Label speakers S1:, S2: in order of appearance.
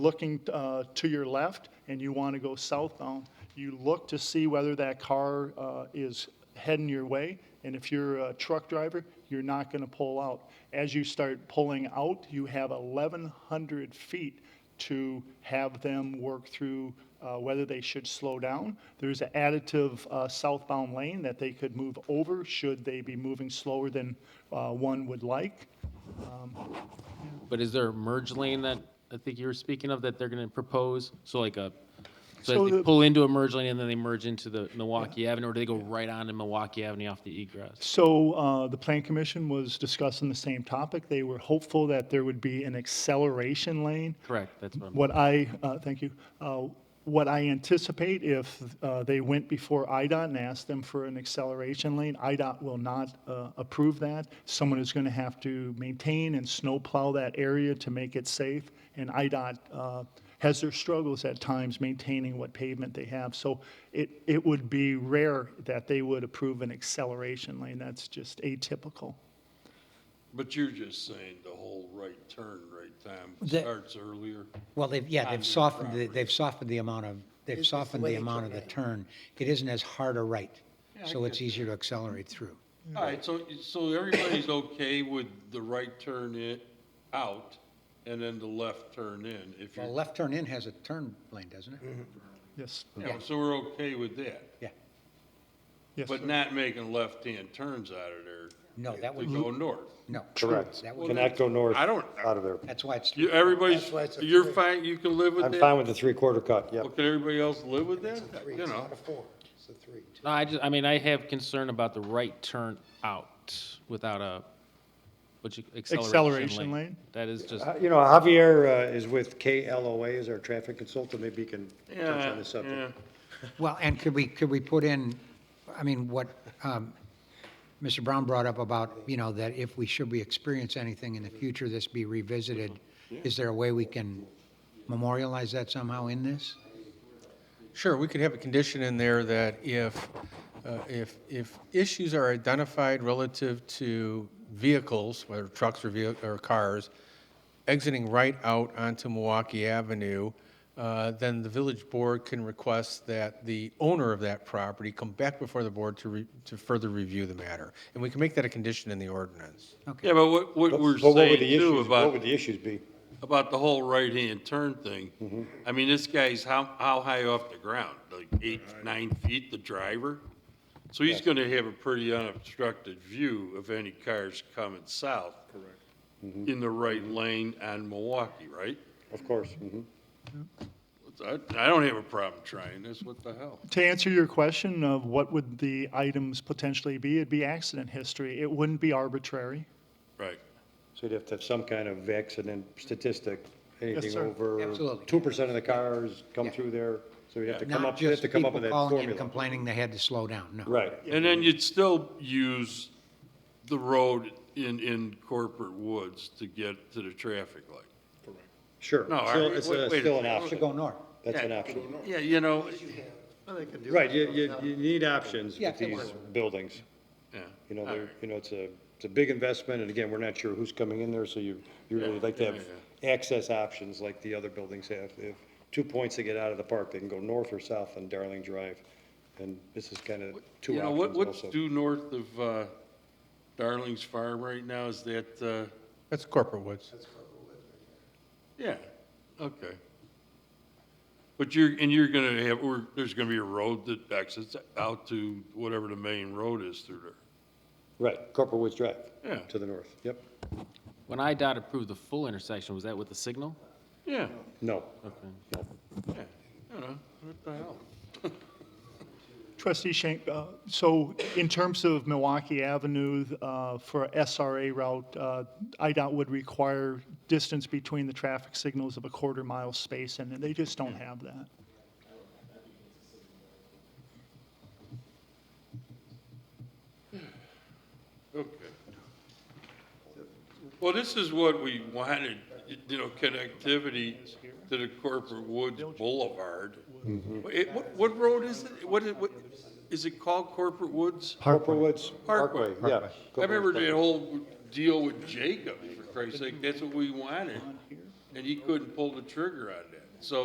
S1: looking uh, to your left and you want to go southbound, you look to see whether that car uh, is heading your way. And if you're a truck driver, you're not going to pull out. As you start pulling out, you have 1,100 feet to have them work through uh, whether they should slow down. There's an additive uh, southbound lane that they could move over should they be moving slower than uh, one would like.
S2: But is there a merge lane that I think you were speaking of that they're going to propose? So like a, so
S1: So
S2: that they
S1: the-
S2: pull into a merge lane and then they merge into the Milwaukee Avenue, or do they go right on to Milwaukee Avenue off the egress?
S1: So uh, the Plan Commission was discussing the same topic. They were hopeful that there would be an acceleration lane.
S2: Correct, that's what I'm,
S1: What I, uh, thank you, Uh, what I anticipate if uh, they went before IDOT and asked them for an acceleration lane, IDOT will not uh, approve that. Someone is going to have to maintain and snowplow that area to make it safe, and IDOT uh, has their struggles at times maintaining what pavement they have. So it, it would be rare that they would approve an acceleration lane, that's just atypical.
S3: But you're just saying the whole right turn, right time
S4: The-
S3: starts earlier?
S4: Well, they've, yeah,
S3: on
S4: they've
S3: your
S4: softened, the-
S3: property.
S4: they've softened the amount of, they've
S5: It's the
S4: softened the
S5: way to
S4: amount of the
S5: right.
S4: turn. It isn't as hard a right,
S3: Yeah, I
S4: so it's
S3: get
S4: easier to accelerate through.
S3: All right, so, so everybody's okay with the right turn in, out, and then the left turn in, if
S4: Well,
S3: you're,
S4: left turn in has a turn lane, doesn't it?
S1: Yes,
S3: you know, so we're okay with that.
S4: Yeah,
S1: yes.
S3: But not making left-hand turns out of there.
S4: No, that would-
S3: To go north.
S4: no.
S6: Correct.
S4: That would,
S6: Cannot go north
S3: I don't-
S6: out of there.
S4: that's why it's,
S3: You, everybody's,
S5: That's why it's a
S3: you're
S5: three.
S3: fine, you can live with
S6: I'm
S3: that?
S6: fine with the three-quarter cut, yep.
S3: Well, can everybody else live with that?
S5: It's a three,
S3: You
S5: it's
S3: know,
S5: not a four, it's a three.
S2: No, I just, I mean, I have concern about the right turn out without a, what you, acceleration
S1: Acceleration
S2: lane.
S1: lane?
S2: That is just,
S6: Uh, You know, Javier uh, is with KLOA as our traffic consultant, maybe he can touch
S3: yeah,
S6: on the subject.
S3: yeah.
S4: well, and could we, could we put in, I mean, what, um, Mr. Brown brought up about, you know, that if we, should we experience anything in the future, this be revisited? Is there a way we can memorialize that somehow in this?
S7: Sure, we could have a condition in there that if, uh, if, if issues are identified relative to vehicles, whether trucks or vehi- or cars, exiting right out onto Milwaukee Avenue, uh, then the village board can request that the owner of that property come back before the board to, re- to further review the matter. And we can make that a condition in the ordinance.
S3: Yeah, but what, what
S6: But-
S3: we're
S6: but what would
S3: saying
S6: the
S3: too
S6: issues-
S3: about.
S6: What would the issues be?
S3: about the whole right-hand turn
S6: Mm-hmm.
S3: thing. I mean, this guy's how, how high off the ground? Like eight, nine feet, the driver? So he's gonna have a pretty unobstructed view of any cars coming south. Correct. In the right
S6: Mm-hmm.
S3: lane on Milwaukee, right?
S6: Of course, mhm.
S3: I, I don't have a problem trying this, what the hell?
S1: To answer your question of what would the items potentially be, it'd be accident history. It wouldn't be arbitrary.
S3: Right.
S6: So you'd have to have some kind of accident statistic, anything
S1: sir.
S6: over
S4: Absolutely.
S6: two percent of the cars come through there, so you'd have to come
S4: Not
S6: up, you'd have
S4: just
S6: to come
S4: people
S6: up with that
S4: calling and
S6: formula.
S4: complaining they had to slow down, no.
S6: Right.
S3: And then you'd still use the road in, in corporate woods to get to the traffic light.
S6: Sure.
S3: No,
S6: Still-
S3: I-
S6: It's
S3: wait-
S6: a-
S3: wait a
S6: still an
S3: minute.
S4: To
S6: option.
S4: go north.
S6: That's an
S3: Yeah.
S6: option.
S3: Yeah, you know,
S6: Right, you, you, you need options
S4: Yeah,
S6: with
S4: they
S6: these
S4: work.
S6: buildings.
S3: yeah.
S6: You know,
S3: All
S6: they're,
S3: right.
S6: you know, it's a, it's a big investment, and again, we're not sure who's coming in there, so you, you really
S3: Yeah,
S6: like to
S3: yeah,
S6: have access options like the other buildings have. If two points to get out of the park, they can go north or south on Darling Drive, and this is kind of two
S3: You know, what,
S6: options
S3: what's
S6: also.
S3: due north of uh, Darling's Farm right now, is that, uh,
S7: That's corporate woods.
S3: yeah, okay. But you're, and you're gonna have, or there's gonna be a road that exits out to whatever the main road is through there.
S6: Right, Corporal Woods Drive.
S3: Yeah.
S6: To the north, yep.
S2: when IDOT approved the full intersection, was that with the signal?
S3: Yeah,
S6: No,
S3: yeah, you know, what the hell?
S1: Trustee Shank, uh, so in terms of Milwaukee Avenue uh, for SRA route, uh, IDOT would require distance between the traffic signals of a quarter mile space, and they just don't have that.
S3: Okay. Well, this is what we wanted, you know, connectivity to the corporate woods boulevard.
S6: Mm-hmm.
S3: It- What, what road is it? What is, what, is it called Corporate Woods?
S6: Corporal Woods Parkway,
S3: Parkway.
S6: yeah.
S3: I
S6: Corporal Woods
S3: remember
S6: Parkway.
S3: that whole deal with Jacob, for Christ's sake, that's what we wanted. and he couldn't pull the trigger on that. So